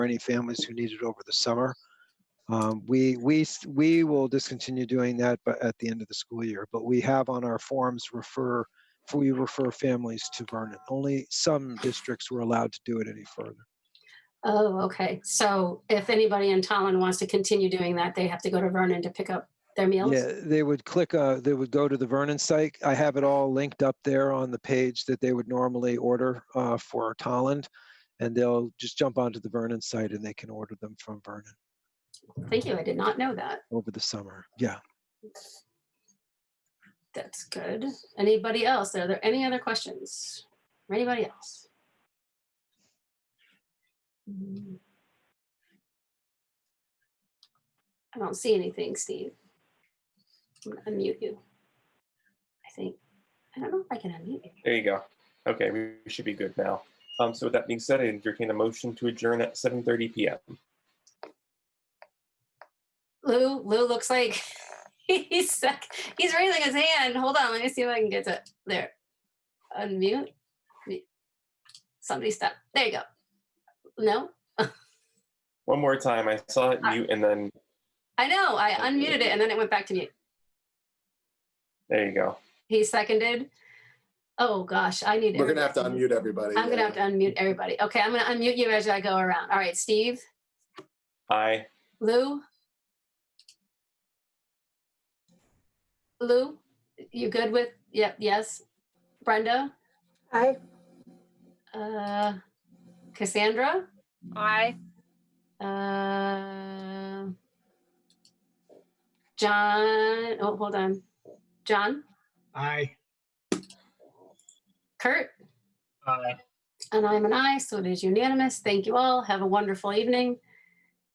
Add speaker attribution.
Speaker 1: for any families who need it over the summer. Um, We, we, s- we will discontinue doing that but at the end of the school year, but we have on our forms refer, we refer families to Vernon. Only some districts were allowed to do it any further.
Speaker 2: Oh, okay. So if anybody in Tallinn wants to continue doing that, they have to go to Vernon to pick up their meals?
Speaker 1: Yeah, they would click, uh, they would go to the Vernon site. I have it all linked up there on the page that they would normally order uh, for Tolland. And they'll just jump onto the Vernon site and they can order them from Vernon
Speaker 2: Thank you. I did not know that.
Speaker 1: over the summer. Yeah.
Speaker 2: That's good. Anybody else? Are there any other questions? for Anybody else? Mm. I don't see anything, Steve. I'm gonna Unmute you. I think, I don't know if I can unmute you.
Speaker 3: There you go. Okay, we we should be good now. Um, so with that being said, I entertain a motion to adjourn at seven thirty PM.
Speaker 2: Lou, Lou looks like he's stuck. He's raising his hand. Hold on, let me see if I can get to there. Unmute. Me- Somebody stop. There you go. No,
Speaker 3: One more time, I saw it mute and then,
Speaker 2: I know. I unmuted it and then it went back to mute.
Speaker 3: there you go.
Speaker 2: He seconded. Oh gosh, I need.
Speaker 4: We're gonna have to
Speaker 2: everybody.
Speaker 4: unmute everybody.
Speaker 2: I'm gonna
Speaker 4: yeah.
Speaker 2: have to unmute everybody. Okay, I'm gonna unmute you as I go around. All right, Steve,
Speaker 3: Aye.
Speaker 2: Lou. Lou, you good with? Yep. Yes. Brenda.
Speaker 5: Aye.
Speaker 2: Uh, Cassandra.
Speaker 5: Aye.
Speaker 2: Uh, John. Oh, hold on. John.
Speaker 6: Aye.
Speaker 2: Kurt.
Speaker 6: Aye.
Speaker 2: And I'm an aye, so it is unanimous. Thank you all. Have a wonderful evening.